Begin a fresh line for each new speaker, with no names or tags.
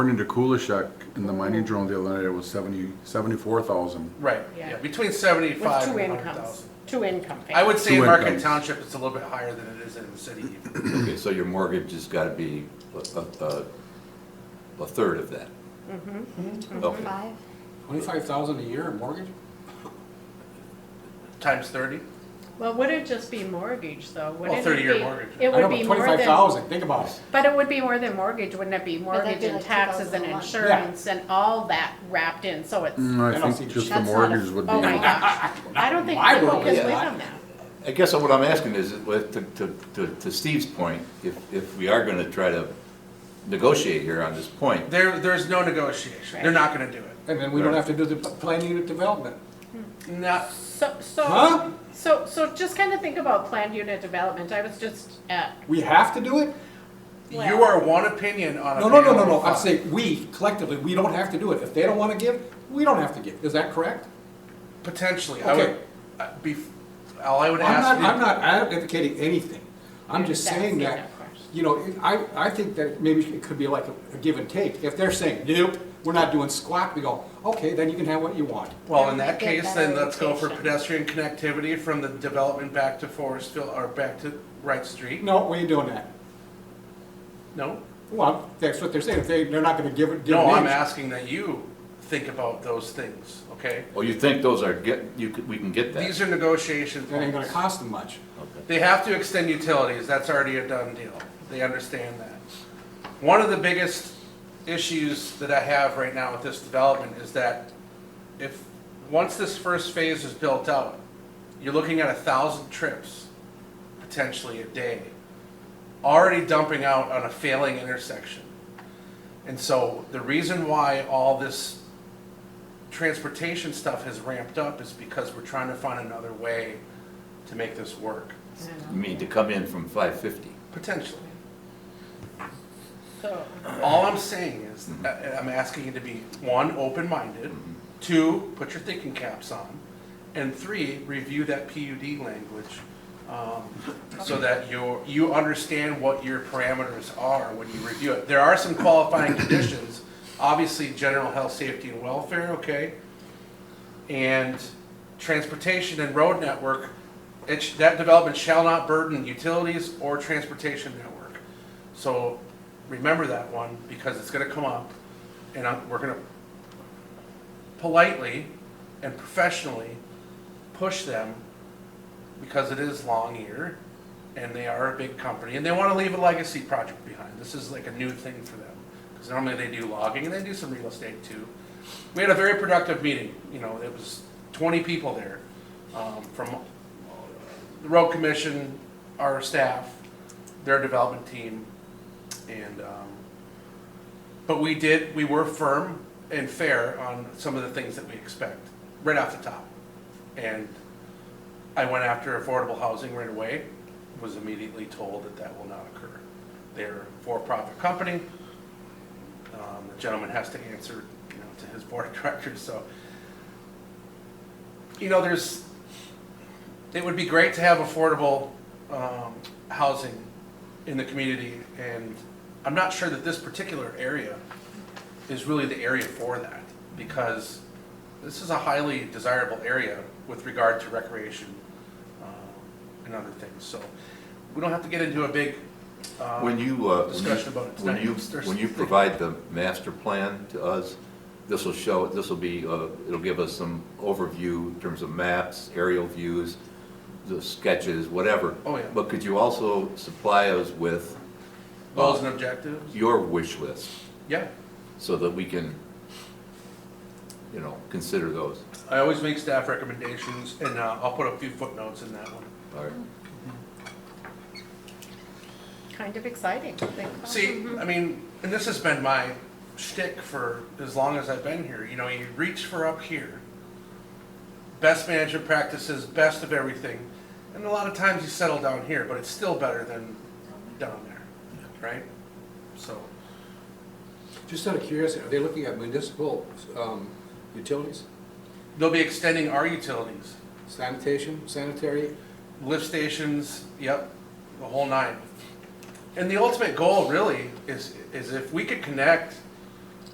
According to Kulishek, in the mining journal the other night, it was 70, 74,000.
Right,
Yeah.
yeah, between
With
seventy-five
two
and a
incomes, two income
I would
families.
say in
Two
Market
incomes.
Township, it's a little bit higher than it is in the city. even.
Okay, so your mortgage has got to be a, a, a third of that? Okay.
Five?
Twenty-five thousand a year in mortgage?
Times thirty?
Well, would it just be mortgage though? Wouldn't it
30-year
be-
mortgage.
It
I
would
know, but
be more
Twenty-five
than,
thousand, think about it.
but it would be more than mortgage, wouldn't it be
that'd
mortgage
be
and
like
taxes and
2001.
insurance and all that wrapped in, so it's,
Mm,
I
I
don't
think
see-
just the
That's not a-
mortgage would be.
oh my gosh. I don't think
My
people
world
can
is
live
not-
on that.
I guess what I'm asking is, with- to- to to- to Steve's point, if, if we are going to try to negotiate here on this point,
There, there's no negotiation, they're
Right.
not gonna do it.
And then we don't have to do the p- plan unit development.
Not,
So,
Huh?
so, so, so just kind of think about planned unit development. I was just at,
We have to do it?
you
Well-
are one opinion on a.
No, no, no, no,
panel
no,
of
I'm
five.
saying we collectively, we don't have to do it. If they don't wanna give, we don't have to give. Is that correct?
Potentially, I
Okay.
would, uh, be, all I would
I'm
ask.
not,
you-
I'm not advocating anything. I'm just
That's
saying
the
that,
other question.
you know, it- I, I think that maybe it could be like a- a give and take. If they're saying, nope, we're not doing squat, we go, okay, then you can have what you want.
Well, in that
Get
case,
better
then let's go for
education.
pedestrian connectivity from the development back to Forestville, or back to Wright Street.
No, we ain't doing that.
No?
Well, that's what they're saying. If they, they're not gonna give it, give
No, I'm
names.
asking that you think about those things, okay?
or you think those are, get, you, could- we can get that?
These are negotiation
That ain't gonna
points.
cost them much.
Okay.
They have to extend utilities, that's already a done deal. They understand that. One of the biggest issues that I have right now with this development is that if, once this first phase is built out, you're looking at a thousand trips potentially a day, already dumping out on a failing intersection. And so the reason why all this transportation stuff has ramped up is because we're trying to find another way to make this work,
You mean to come in from five fifty?
potentially.
So,
All I'm saying is, I- I'm asking you to be, one, open-minded, two, put your thinking caps on, and three, review that PUD language, um, so that you, you understand what your parameters are when you review it. There are some qualifying conditions, obviously, general health, safety, and welfare, okay? And transportation and road network, it, sh- that development shall not burden utilities or transportation network. So remember that one because it's gonna come up and I'm, we're gonna politely and professionally push them because it is Longyear and they are a big company and they wanna leave a legacy project behind. This is like a new thing for them. Cause normally they do logging and they do some real estate too. We had a very productive meeting, you know, it was twenty people there, um, from the road commission, our staff, their development team, and, um, but we did, we were firm and fair on some of the things that we expect, right off the top. And I went after affordable housing right away, was immediately told that that will not occur. They're a for-profit company. Um, the gentleman has to answer, you know, to his board of directors, so. You know, there's, it would be great to have affordable, um, housing in the community, and I'm not sure that this particular area is really the area for that, because this is a highly desirable area with regard to recreation um, and other things, so we don't have to get into a big, um,
When you, uh, when you-
Discussion about it
when
tonight.
you,
There's-
when you provide the master plan to us, this will show, this will be, uh, it'll give us some overview in terms of maps, aerial views, the sketches, whatever.
Oh, yeah.
But could you also supply us with
goals and objectives,
your wish list
yeah.
so that we can, you know, consider those?
I always make staff recommendations, and uh, I'll put a few footnotes in that one.
All right.
kind of exciting. to think about.
See, I mean, and this has been my shtick for as long as I've been here, you know, you reach for up here. Best management practices, best of everything, and a lot of times you settle down here, but it's still better than down there, right? So,
Just out of curiosity, are they looking at municipal um, utilities,
they'll be extending our utilities,
sanitation, sanitary?
lift stations, yep, the whole nine. And the ultimate goal really is, is if we could connect